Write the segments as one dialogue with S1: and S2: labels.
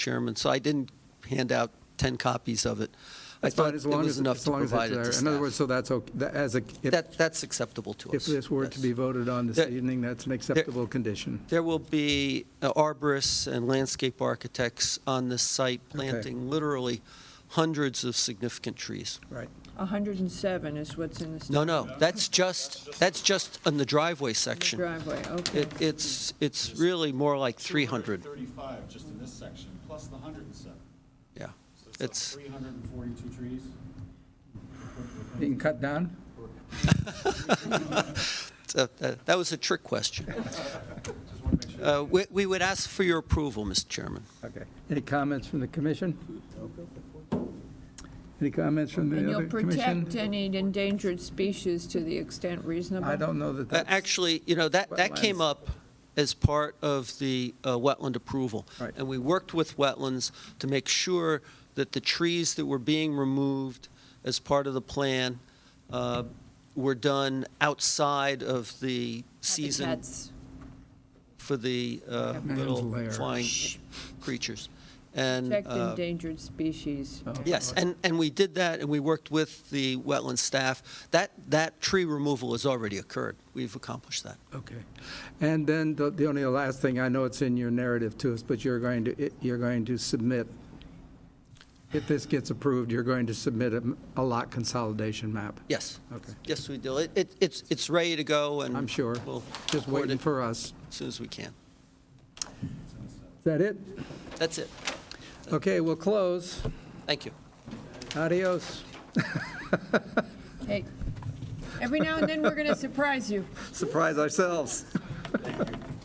S1: Chairman, so I didn't hand out 10 copies of it. I
S2: That's fine,
S1: thought
S2: as
S1: it
S2: long
S1: was
S2: as,
S1: enough
S2: as
S1: to
S2: long as it's
S1: provide it
S2: there.
S1: to
S2: In other words,
S1: staff.
S2: so that's, okay. that- as a, if,
S1: That- That's acceptable to
S2: if
S1: us.
S2: this were to
S1: yes.
S2: be voted on this
S1: There-
S2: evening, that's an acceptable condition.
S1: There will be uh, arborists and landscape architects on this site planting literally hundreds of significant trees.
S2: Right.
S3: 107 is what's in the
S1: No, no, that's just, that's just on the driveway section.
S3: driveway, okay.
S1: It- It's, it's really more like 300.
S4: 235 just in this section, plus the 107.
S1: Yeah,
S4: So like
S1: it's,
S4: 342 trees.
S2: You can cut down?
S1: it's a- uh, that that was a trick question.
S4: Just want to make sure.
S1: Uh, we- We would ask for your approval, Mr. Chairman.
S2: Okay. Any comments from the commission? Any comments from
S3: And
S2: the
S3: you'll
S2: other
S3: protect
S2: commission?
S3: any endangered species to the extent reasonable?
S2: I don't know that
S1: Uh,
S2: that's.
S1: Actually, you know, that, that came
S2: Wetlands.
S1: up as part of the uh, wetland approval.
S2: Right.
S1: And we worked with wetlands to make sure that the trees that were being removed as part of the plan uh, were done outside of the season
S3: Habitats.
S1: for the uh,
S2: Man's
S1: little
S2: lair.
S1: flying creatures. And,
S3: Protect
S1: uh,
S3: endangered species.
S2: Oh.
S1: yes, and, and we did that, and we worked with the wetland staff. That, that tree removal has already occurred. We've accomplished that.
S2: Okay. And then the the only last thing, I know it's in your narrative to us, but you're going to, you're going to submit, if this gets approved, you're going to submit a a lot consolidation map.
S1: Yes.
S2: Okay.
S1: Yes, we do. It, it- it's, it's ready to go, and.
S2: I'm sure.
S1: We'll
S2: Just
S1: forward
S2: waiting
S1: it
S2: for us.
S1: as soon as we can.
S2: Is that it?
S1: That's it.
S2: Okay, we'll close.
S1: Thank you.
S2: Adios.
S3: Hey, every now and then, we're going to surprise you
S2: Surprise ourselves.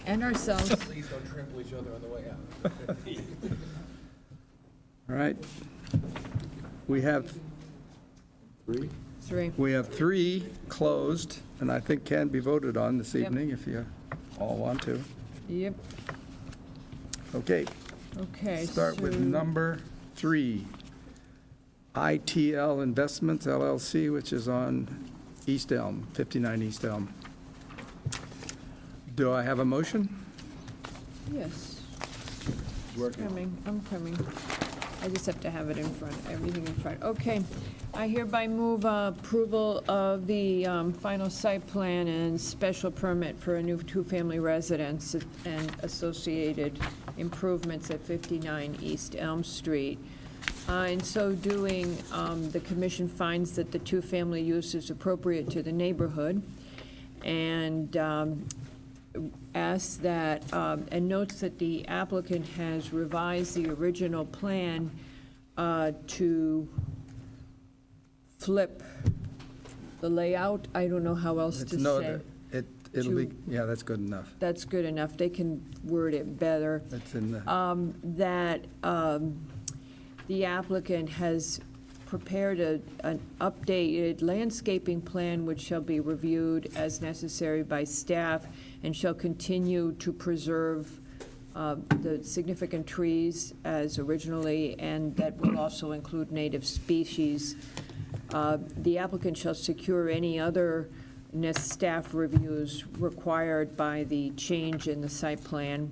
S3: and ourselves.
S5: Please don't trample each other on the way out.
S2: All right. We have,
S3: Three.
S2: we have three closed, and I think can be voted on this
S3: Yep.
S2: evening if you all want to.
S3: Yep,
S2: Okay,
S3: okay.
S2: start with
S3: so-
S2: number three. ITL Investments LLC, which is on East Elm, 59 East Elm. Do I have a motion?
S3: Yes. It's Coming, I'm coming. I just have to have it in front, everything in front. Okay. I hereby move uh, approval of the um, final site plan and special permit for a new two-family residence and associated improvements at 59 East Elm Street. Uh, In so doing, um, the commission finds that the two-family use is appropriate to the neighborhood, and um, asks that, um, and notes that the applicant has revised the original plan uh, to flip the layout, I don't know how else
S2: It's
S3: to
S2: no-
S3: say.
S2: It, it'll be,
S3: Two.
S2: yeah, that's good enough.
S3: That's good enough, they can word it better
S2: That's in the.
S3: that um, the applicant has prepared a- an updated landscaping plan which shall be reviewed as necessary by staff and shall continue to preserve uh, the significant trees as originally, and that will also include native species. Uh, The applicant shall secure any other NIST staff reviews required by the change in the site plan.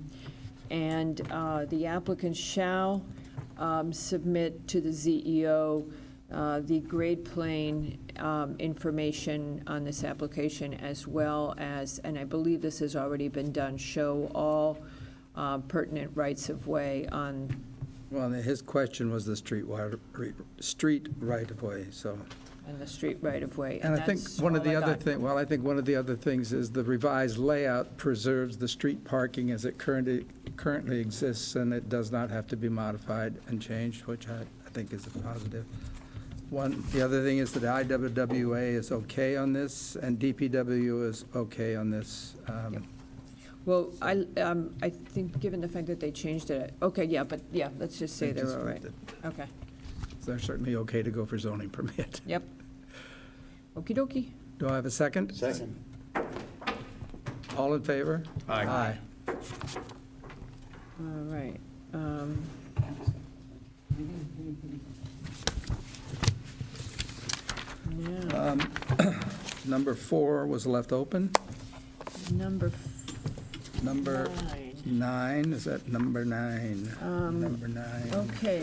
S3: And uh, the applicant shall um, submit to the ZEO uh, the grade plane um, information on this application as well as, and I believe this has already been done, show all uh, pertinent rights-of-way on,
S2: Well, and his question was the street wide, street right-of-way, so.
S3: on the street right-of-way.
S2: And I think
S3: that's
S2: one of
S3: all I
S2: the other
S3: got.
S2: thing, well, I think one of the other things is the revised layout preserves the street parking as it currently, currently exists, and it does not have to be modified and changed, which I, I think is a positive. One, the other thing is that IWWA is okay on this, and DPW is okay on this. Um,
S3: Well, I, um, I think, given the fact that they changed it, okay, yeah, but, yeah, let's just say
S2: They
S3: they're
S2: just
S3: all right.
S2: flipped
S3: Okay,
S2: They're certainly okay to go for zoning permit.
S3: yep. Okey dokey.
S2: Do I have a second? Second. All in favor? Aye. Aye.
S3: All right. um,
S2: Um,
S3: Now,
S2: Number four was left open.
S3: number
S2: Number
S3: nine.
S2: nine, is that number nine? Number nine.
S3: Okay,